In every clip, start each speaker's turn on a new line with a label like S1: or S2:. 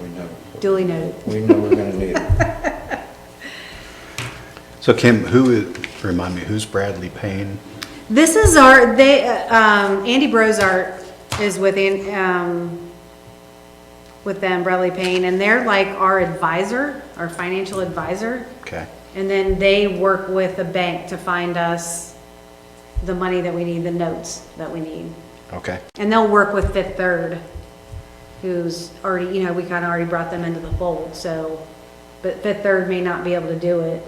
S1: we know,
S2: Duly noted.
S1: we know we're gonna need it.
S3: So Kim, who, i- remind me, who's Bradley Payne?
S2: This is our, they, uh, um, Andy Brozart is with, An- um, with them, Bradley Payne, and they're like our advisor, our financial advisor.
S3: Okay,
S2: And then they work with the bank to find us the money that we need, the notes that we need.
S3: okay,
S2: And they'll work with Fifth Third, who's already, you know, we kind of already brought them into the fold, so, but Fifth Third may not be able to do it,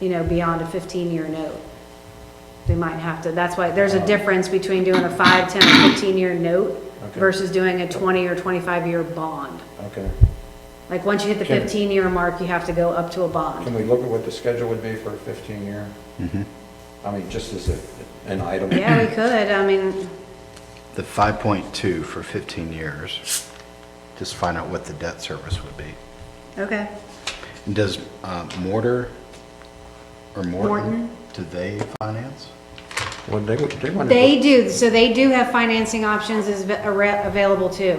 S2: you know, beyond a 15-year note. They might have to, that's why, there's a difference between doing a 5, 10, or 15-year note
S1: Okay.
S2: versus doing a 20 or 25-year bond.
S1: Okay.
S2: Like, once you hit the
S1: Can-
S2: 15-year mark, you have to go up to a bond.
S1: Can we look at what the schedule would be for a fifteen-year?
S4: Mm-hmm.
S1: I mean, just as a, an item.
S2: Yeah, we could, I mean,
S3: the 5.2 for 15 years, just find out what the debt service would be.
S2: okay.
S3: And Does uh, Mortar or Morton,
S2: Morton.
S3: do they finance?
S1: Well, they, would- they wanna.
S2: They do, so they do have financing options is av- ar- available too.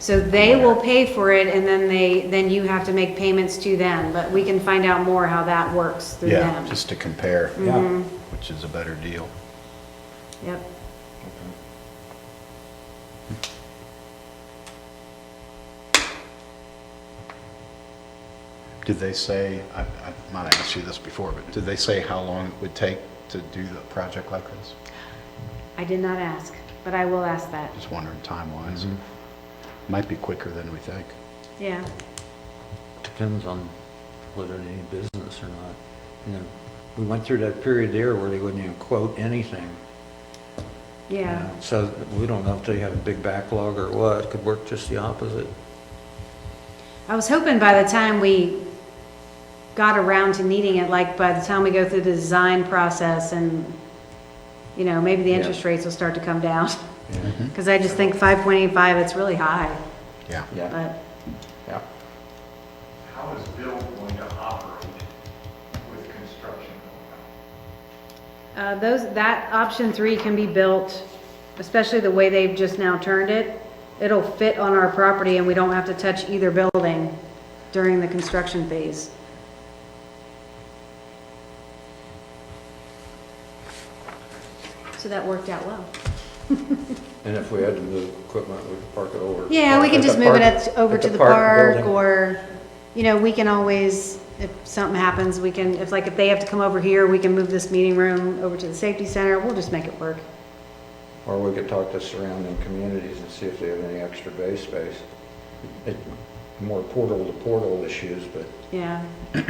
S2: So they will pay for it and then they, then you have to make payments to them, but we can find out more how that works through
S3: Yeah,
S2: them.
S3: just to compare,
S1: Yeah.
S2: Mm-hmm.
S3: which is a better deal.
S2: Yep.
S3: Did they say, I I might have asked you this before, but did they say how long it would take to do the project like this?
S2: I did not ask, but I will ask that.
S3: Just wondering time-wise. Might be quicker than we think.
S2: Yeah.
S4: Depends on whether they need business or not. You know, we went through that period there where they wouldn't even quote anything. you
S2: Yeah.
S4: know. So we don't know if they had a big backlog or what, It could work just the opposite.
S2: I was hoping by the time we got around to needing it, like by the time we go through the design process and, you know, maybe the
S4: Yeah.
S2: interest rates will start to come down.
S1: Yeah.
S2: Cause I just think five point eight five, it's really high,
S3: Yeah.
S1: Yeah,
S2: but.
S1: yeah.
S5: How is Bill going to operate with construction going on?
S2: Uh, Those, that option three can be built, especially the way they've just now turned it. It'll fit on our property and we don't have to touch either building during the construction phase. So that worked out well.
S1: And if we had to move equipment, we'd park it over.
S2: Yeah, we can
S1: at the
S2: just move it
S1: park-
S2: at- over
S1: at
S2: to the park
S1: building.
S2: or, you know, we can always, if something happens, we can, if like, if they have to come over here, we can move this meeting room over to the safety center. We'll just make it work.
S1: Or we could talk to surrounding communities and see if they have any extra bay space. It- More portal to portal issues, but
S2: Yeah.
S1: we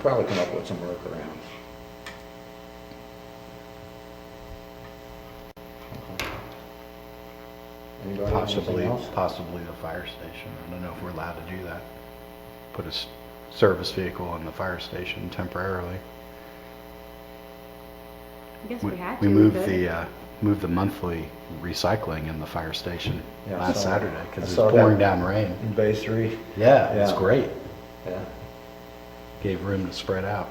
S1: probably come up with some workarounds. Anybody have anything
S3: Possibly,
S1: else?
S3: possibly the fire station. I don't know if we're allowed to do that. Put a s- service vehicle in the fire station temporarily.
S2: I guess we had to.
S3: moved
S2: could.
S3: the, uh, moved the monthly recycling in the fire station
S1: Yeah, I
S3: last
S1: saw-
S3: Saturday
S1: I
S3: because it
S1: saw
S3: was pouring
S1: that.
S3: down rain.
S1: In Bay Three?
S3: Yeah, it's
S1: Yeah.
S3: great.
S1: Yeah.
S3: Gave room to spread out.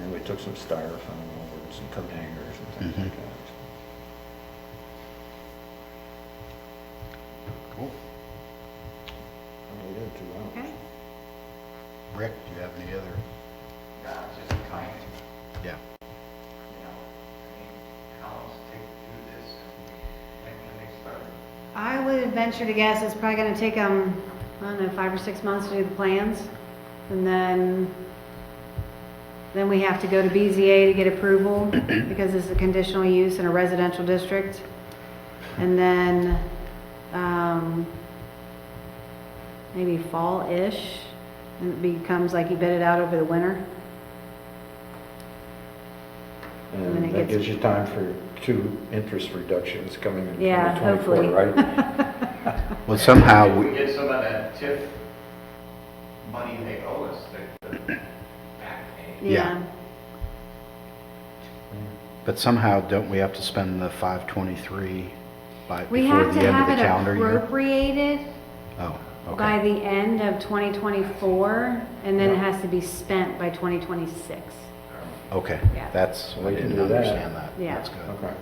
S1: And we took some styrofoam over and some coat hangers and things like that.
S3: Cool.
S1: We Oh, did two hours.
S2: Okay.
S3: Rick, do you have any other?
S6: Yeah, just kind of,
S3: Yeah.
S6: you know, I mean, how long does it take to do this? When can they start?
S2: I would venture to guess it's probably gonna take them, I don't know, five or six months to do the plans. And then, then we have to go to BZA to get approval because it's a conditional use in a residential district. And then, um, maybe fall-ish, and it becomes like you bid it out over the winter. And then it
S1: And that
S2: gets-
S1: gives you time for two interest reductions coming in
S2: Yeah,
S1: 2024,
S2: hopefully.
S1: right?
S3: Well, somehow,
S6: If we
S3: we-
S6: get some of that TIF money they owe us, the, the back pay.
S3: Yeah. but somehow don't we have to spend the 523 by,
S2: We
S3: before
S2: have
S3: the
S2: to
S3: end of
S2: have
S3: the
S2: it
S3: calendar year?
S2: appropriated
S3: Oh,
S2: by
S3: okay.
S2: the end of 2024, and then it has to be spent by 2026.
S3: Okay,
S2: Yeah.
S3: that's, I
S1: We can
S3: didn't
S1: do that.
S3: understand that.
S2: Yeah.
S3: That's good.
S1: Okay,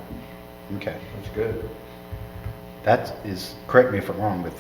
S3: Okay.
S1: that's good.
S3: That is, correct me if I'm wrong, but